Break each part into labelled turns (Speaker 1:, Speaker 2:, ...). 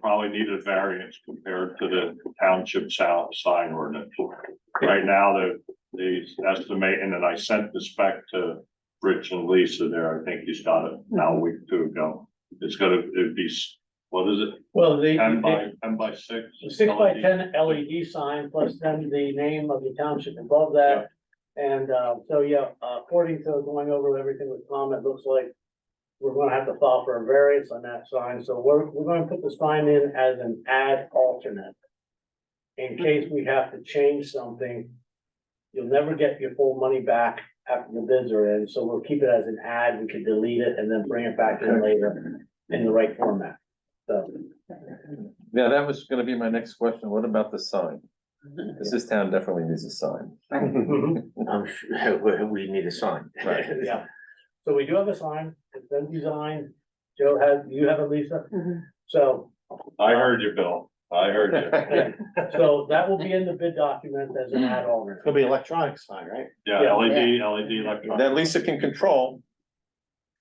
Speaker 1: probably need a variance compared to the township sal- sign ordinance. Right now, the, the estimate, and then I sent this back to Rich and Lisa there, I think he's got it now a week or two ago. It's gonna, it'd be, s- what is it,
Speaker 2: Well, they,
Speaker 1: ten
Speaker 2: they-
Speaker 1: by, E ten by six?
Speaker 2: six by ten LED sign plus then the name of the township above that. And, uh, so, yeah, uh, according to going over everything with Tom, it looks like we're gonna have to file for a variance on that sign, so we're, we're gonna put the sign in as an ad alternate. In case we have to change something, you'll never get your full money back after the bids are in, so we'll keep it as an ad, we can delete it and then bring it back in later in the right format, so.
Speaker 3: Yeah, that was gonna be my next question. What about the sign? 'Cause this town definitely needs a sign.
Speaker 4: I'm sure, we, we need a sign.
Speaker 3: Right.
Speaker 2: Yeah, so we do have a sign, it's been designed, Joe has, you have it, Lisa,
Speaker 5: Mm-hmm.
Speaker 2: so,
Speaker 1: I heard you, Bill, I heard you,
Speaker 2: so that will be in the bid document as an add on.
Speaker 4: It'll be electronic sign, right?
Speaker 1: yeah, E LED, LED electronic.
Speaker 3: That Lisa can control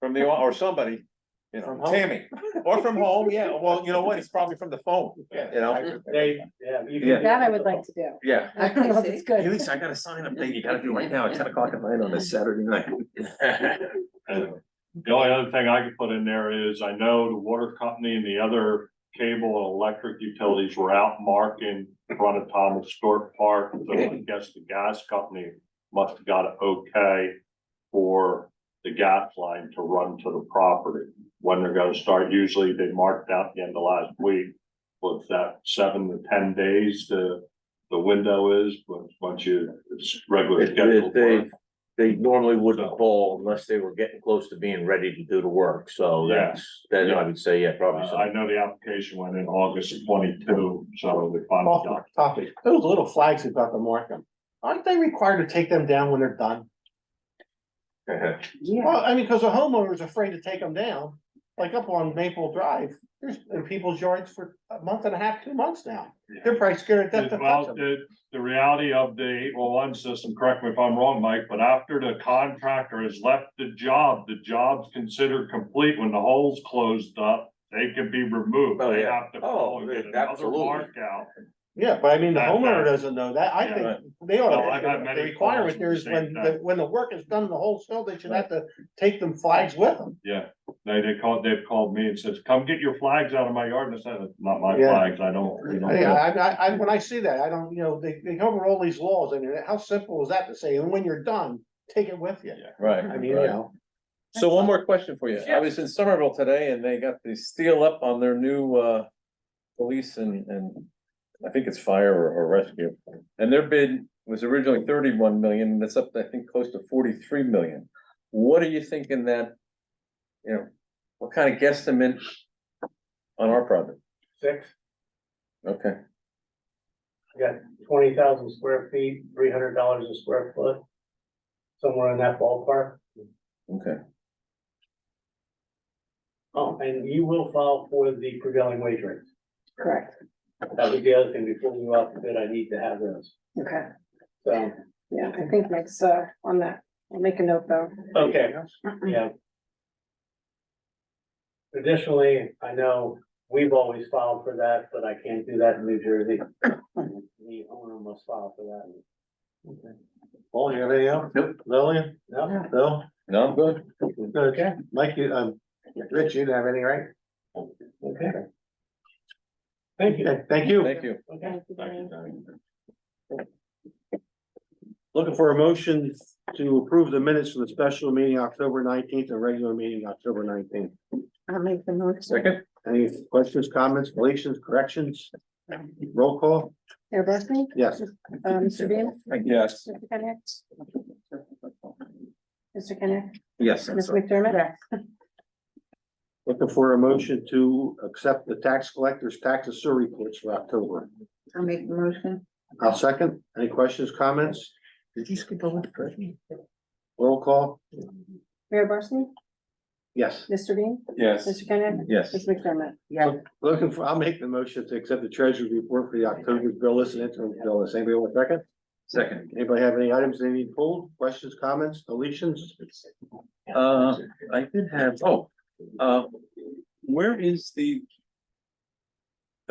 Speaker 3: from the, or somebody, you
Speaker 4: From
Speaker 3: know,
Speaker 4: home?
Speaker 3: Tammy, or from home, yeah, well, you know what, it's probably from the phone, you know?
Speaker 2: They, yeah. you can-
Speaker 3: Yeah.
Speaker 5: That I would like to do.
Speaker 3: Yeah.
Speaker 5: I don't know if it's
Speaker 3: Hey,
Speaker 5: good.
Speaker 3: Lisa, I got a sign update you gotta do right now at ten o'clock at night on this Saturday night.
Speaker 1: And the only other thing I could put in there is I know the water company and the other cable and electric utilities were out marking in front of Thomas Stewart Park. So I guess the gas company must have got it okay for the gas line to run to the property. When they're gonna start, usually they marked out the end of last week, what's that, seven to ten days the, the window is, once- once you, it's regular
Speaker 4: It- it-
Speaker 1: schedule.
Speaker 4: They, they normally wouldn't call unless they were getting close to being ready to do the work, so
Speaker 1: Yeah.
Speaker 4: that's, then I would say, yeah,
Speaker 1: Uh,
Speaker 4: probably so.
Speaker 1: I know the application went in August of twenty-two, so the final
Speaker 6: Off
Speaker 1: doc.
Speaker 6: topic, those little flags you've got to mark them, aren't they required to take them down when they're done?
Speaker 5: Yeah.
Speaker 6: Well, I mean, because a homeowner's afraid to take them down, like up on Maple Drive, there's in people's yards for a month and a half, two months now. They're probably scared to death to touch
Speaker 1: Well,
Speaker 6: 'em.
Speaker 1: the, the reality of the eight one one system, correct me if I'm wrong, Mike, but after the contractor has left the job, the job's considered complete when the hole's closed up. They can be removed.
Speaker 4: Oh,
Speaker 1: They
Speaker 4: yeah.
Speaker 1: have to
Speaker 4: Oh,
Speaker 1: call and get another
Speaker 4: absolutely.
Speaker 1: mark out.
Speaker 6: Yeah, but I mean, the
Speaker 1: That-
Speaker 6: homeowner
Speaker 1: that-
Speaker 6: doesn't know that, I
Speaker 1: Yeah,
Speaker 6: think they ought
Speaker 1: Well, I've had
Speaker 6: to,
Speaker 1: many
Speaker 6: the requirement
Speaker 1: calls
Speaker 6: there is when,
Speaker 1: saying that.
Speaker 6: the- when the work is done, in the whole sale, they should have to take them flags with them.
Speaker 1: Yeah, they, they called, they've called me and says, come get your flags out of my yard. And I said, "It's not my
Speaker 6: Yeah.
Speaker 1: flags. I don't, you know.
Speaker 6: Yeah, I, I, I, when I see that, I don't, you know, they, they cover all these laws, and how simple is that to say, and when you're done, take it with you,
Speaker 3: Right.
Speaker 6: I mean, you
Speaker 3: right.
Speaker 6: know.
Speaker 3: So one more question for you. I was in Somerville today and they got the steel up on their new uh police and and I think it's fire or or rescue. And their bid was originally thirty-one million, and it's up, to, I think, close to forty-three million. What are you thinking that, you know, what kind of guesstimate on our project?
Speaker 2: Six,
Speaker 3: Okay,
Speaker 2: twenty thousand square feet, three hundred dollars a square foot. Somewhere in that ballpark.
Speaker 3: okay.
Speaker 2: Oh, and you will file for the prevailing wage rate.
Speaker 5: Correct.
Speaker 2: That was the other thing before we go out to bid, I need to have those.
Speaker 5: Okay.
Speaker 2: So,
Speaker 5: Yeah, I think Mike's uh on that. I'll make a note though.
Speaker 2: okay. Yeah. Traditionally, I know we've always filed for that, but I can't do that in New Jersey. The owner must file for that.
Speaker 6: Paul, you have anything else?
Speaker 3: Nope.
Speaker 6: Lillian,
Speaker 5: Uh-uh.
Speaker 2: No,
Speaker 6: Bill,
Speaker 3: No, I'm good.
Speaker 6: okay, Mike, you, um, Rich, you didn't have any, right?
Speaker 2: okay. Thank you.
Speaker 6: Okay, Thank you.
Speaker 3: Thank you.
Speaker 2: Okay.
Speaker 6: Looking for a motion to approve the minutes from the special meeting October nineteenth and regular meeting October nineteenth.
Speaker 5: I'll make the note.
Speaker 3: Second,
Speaker 6: Any questions, comments, deletions, corrections? Roll call?
Speaker 5: Mayor Barsney?
Speaker 6: Yes.
Speaker 5: Uh, Mr. Bean?
Speaker 3: yes.
Speaker 5: Mr. Kenneth? Mr. Kenneth?
Speaker 3: Yes, I'm
Speaker 5: Ms.
Speaker 3: sorry.
Speaker 5: McDermott? Yes.
Speaker 6: Looking for a motion to accept the tax collector's tax and sewer reports for October.
Speaker 5: I'll make the motion.
Speaker 6: I'll second. Any questions, comments?
Speaker 3: Did you skip over the president?
Speaker 6: Roll call?
Speaker 5: Mayor Barsney?
Speaker 6: Yes.
Speaker 5: Mr. Bean?
Speaker 3: Yes,
Speaker 5: Mr. Kenneth?
Speaker 3: yes.
Speaker 5: Ms. McDermott?
Speaker 6: Looking for, I'll make the motion to accept the treasurer's report for the October bill list and interim bill list. Anybody want a second?
Speaker 3: Second.
Speaker 6: Anybody have any items they need pulled? Questions, comments, deletions?
Speaker 3: Uh, I did have, oh, uh, where is the